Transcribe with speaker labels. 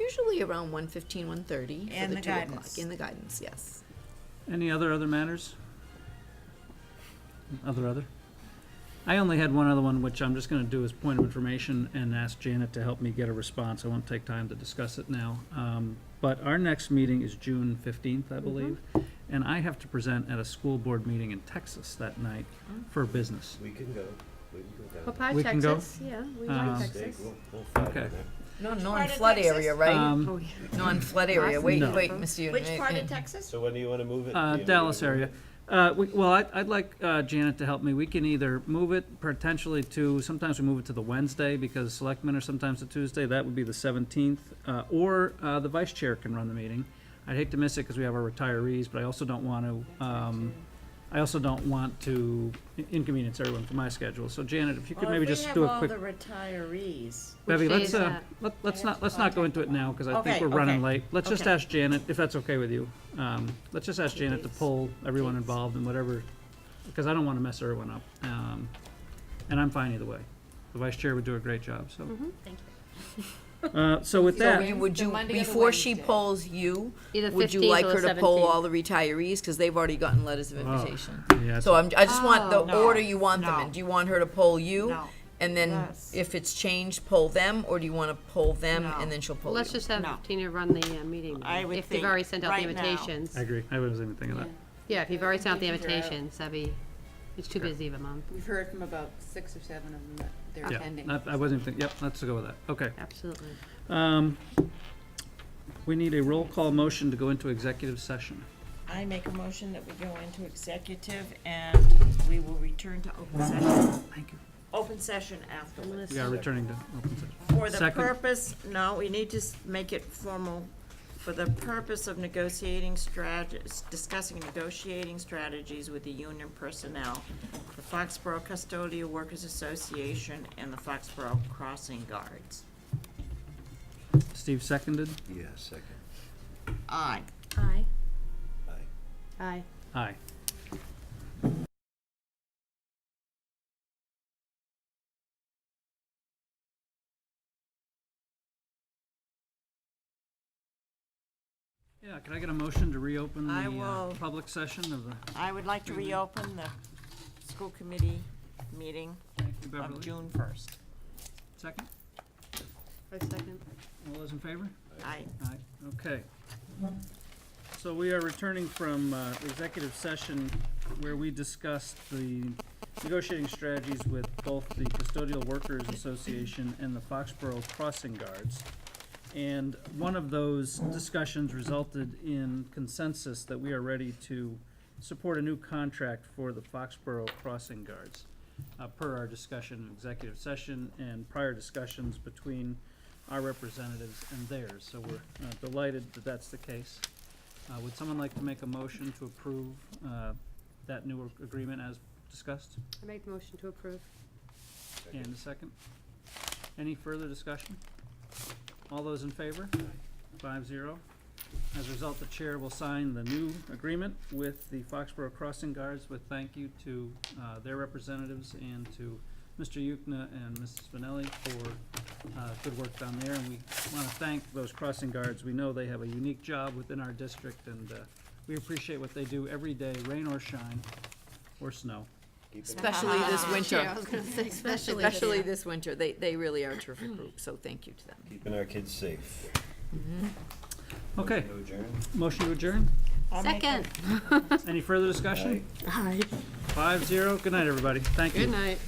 Speaker 1: usually around 1:15, 1:30 for
Speaker 2: And
Speaker 1: the
Speaker 2: the
Speaker 1: two o'clock.
Speaker 2: guidance.
Speaker 1: In the guidance, yes.
Speaker 3: Any other other matters? Other other? I only had one other one, which I'm just gonna do as point of information and ask Janet to help me get a response. I won't take time to discuss it now. Um, but our next meeting is June fifteenth, I believe, and I have to present at a school board meeting in Texas that night
Speaker 1: Oh.
Speaker 3: for business.
Speaker 4: We can go, we can go down.
Speaker 1: Popeye,
Speaker 3: We can go?
Speaker 1: Texas, yeah, we
Speaker 3: Um,
Speaker 1: like
Speaker 4: Steak,
Speaker 1: Texas.
Speaker 4: we'll, we'll find
Speaker 3: Okay.
Speaker 4: it there.
Speaker 5: No,
Speaker 2: Which
Speaker 5: no in
Speaker 2: part of
Speaker 5: flood
Speaker 2: Texas?
Speaker 5: area, right?
Speaker 3: Um,
Speaker 1: Oh, yeah.
Speaker 5: No in flood area, wait,
Speaker 3: No.
Speaker 5: wait, Mr.
Speaker 2: Which part
Speaker 5: Mayor.
Speaker 2: of Texas?
Speaker 4: So when do you wanna move it?
Speaker 3: Uh,
Speaker 4: Do you
Speaker 3: Dallas
Speaker 4: wanna move
Speaker 3: area. Uh, we, well, I'd, I'd like uh, Janet to help me. We can either move it potentially to, sometimes we move it to the Wednesday because selectmen are sometimes the Tuesday. That would be the seventeenth. Uh, or, uh, the vice chair can run the meeting. I'd hate to miss it because we have our retirees, but I also don't want to, um, I also don't want to inconvenience everyone for my schedule. So Janet, if you could maybe just do a quick.
Speaker 2: Well, if we have all the retirees,
Speaker 3: Bevy,
Speaker 1: Which day
Speaker 3: let's,
Speaker 1: is
Speaker 3: uh,
Speaker 1: that?
Speaker 3: let- let's
Speaker 2: have
Speaker 3: not,
Speaker 2: to
Speaker 3: let's not go
Speaker 2: contact
Speaker 3: into it now, because I think
Speaker 2: Okay,
Speaker 3: we're running
Speaker 2: okay,
Speaker 3: late. Let's just
Speaker 2: okay.
Speaker 3: ask Janet, if that's okay with you. Um, Let's just ask Janet to
Speaker 2: days?
Speaker 3: pull everyone
Speaker 2: Dates.
Speaker 3: involved and whatever, because I don't want to mess everyone up. Um, And I'm fine either way. The vice chair would do a great job, so.
Speaker 2: thank you.
Speaker 3: Uh, So with
Speaker 5: So
Speaker 3: that,
Speaker 5: you- would
Speaker 1: The
Speaker 5: you,
Speaker 1: Monday or the
Speaker 5: before she
Speaker 1: Wednesday?
Speaker 5: polls you,
Speaker 6: Either
Speaker 5: would you
Speaker 6: 15th
Speaker 5: like
Speaker 6: or
Speaker 5: her to
Speaker 6: the
Speaker 5: poll
Speaker 6: 17th.
Speaker 5: all the retirees? Because they've already gotten letters of
Speaker 3: Oh.
Speaker 5: invitation.
Speaker 3: yeah,
Speaker 5: So
Speaker 3: so-
Speaker 5: I'm, I just want
Speaker 1: Oh.
Speaker 5: the
Speaker 2: No.
Speaker 5: order you want them
Speaker 2: No.
Speaker 5: in. Do you want her to poll you?
Speaker 2: No.
Speaker 5: And then
Speaker 2: Yes.
Speaker 5: if it's changed, poll them, or do you want to poll them
Speaker 2: No.
Speaker 5: and then she'll
Speaker 6: Well,
Speaker 5: poll you?
Speaker 6: let's just have
Speaker 2: No.
Speaker 6: Tina run the uh, meeting.
Speaker 2: I
Speaker 6: then,
Speaker 2: would
Speaker 6: If they've
Speaker 2: think
Speaker 6: already sent out the
Speaker 2: right now.
Speaker 6: invitations.
Speaker 3: I agree. I wasn't even thinking of that.
Speaker 6: Yeah, if you've already sent out the
Speaker 7: Yeah, we can figure out.
Speaker 6: invitations, that'd be, it's too
Speaker 3: Sure.
Speaker 6: busy of a month.
Speaker 7: We've heard from about six or seven of them that they're
Speaker 3: Yeah,
Speaker 7: attending.
Speaker 3: not- I wasn't even thinking, yep, let's go with that. Okay.
Speaker 6: Absolutely.
Speaker 3: Um, We need a roll call motion to go into executive session.
Speaker 2: I make a motion that we go into executive and we will return to open session. Thank you. Open session afterwards.
Speaker 3: We are returning to open session.
Speaker 2: For the
Speaker 3: Second.
Speaker 2: purpose, no, we need to s- make it formal, for the purpose of negotiating strategies, discussing negotiating strategies with the union personnel, the Foxborough Custodial Workers Association and the Foxborough Crossing Guards.
Speaker 3: Steve seconded.
Speaker 4: Yeah, second.
Speaker 2: Aye.
Speaker 6: Aye.
Speaker 4: Aye.
Speaker 6: Aye.
Speaker 3: Aye. Yeah, can I get a motion to reopen the
Speaker 2: I
Speaker 3: uh,
Speaker 2: will.
Speaker 3: public session of the,
Speaker 2: I would like to reopen the school committee meeting
Speaker 3: thank you,
Speaker 2: of
Speaker 3: Beverly?
Speaker 2: June first.
Speaker 3: Second?
Speaker 6: I second.
Speaker 3: All those in favor?
Speaker 2: Aye.
Speaker 3: Aye, okay. So we are returning from uh, executive session where we discussed the negotiating strategies with both the Custodial Workers Association and the Foxborough Crossing Guards. And one of those discussions resulted in consensus that we are ready to support a new contract for the Foxborough Crossing Guards, uh, per our discussion in executive session and prior discussions between our representatives and theirs. So we're uh, delighted that that's the case. Uh, Would someone like to make a motion to approve uh, that new ag- agreement as discussed?
Speaker 6: I make the motion to approve.
Speaker 3: And a second? Any further discussion? All those in favor? Five zero. As a result, the chair will sign the new agreement with the Foxborough Crossing Guards with thank you to uh, their representatives and to Mr. Yukna and Mrs. Spinelli for uh, good work down there. And we want to thank those crossing guards. We know they have a unique job within our district and uh, we appreciate what they do every day, rain or shine, or snow.
Speaker 4: Keep it-
Speaker 5: Especially this winter.
Speaker 6: I was gonna say, especially.
Speaker 5: Especially this winter. They, they really are a terrific group, so thank you to them.
Speaker 4: Keeping our kids safe.
Speaker 3: Okay,
Speaker 4: No adjourn?
Speaker 3: motion to adjourn?
Speaker 2: I'll make a-
Speaker 6: Second.
Speaker 3: Any further discussion? Five zero. Good night, everybody. Thank you.
Speaker 6: Good night.